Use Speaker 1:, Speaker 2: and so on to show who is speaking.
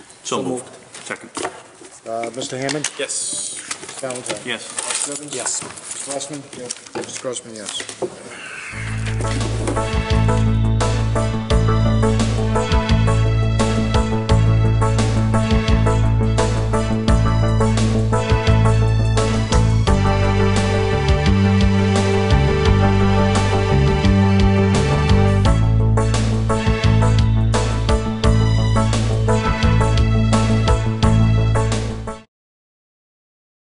Speaker 1: So
Speaker 2: So
Speaker 1: moved. Second.
Speaker 3: Uh, Mr. Hammond?
Speaker 2: Yes.
Speaker 3: Mr. Valentine?
Speaker 1: Yes.
Speaker 3: Mr. Evans?
Speaker 4: Yes.
Speaker 3: Mr. Glassman? Yes. Mr. Grossman, yes.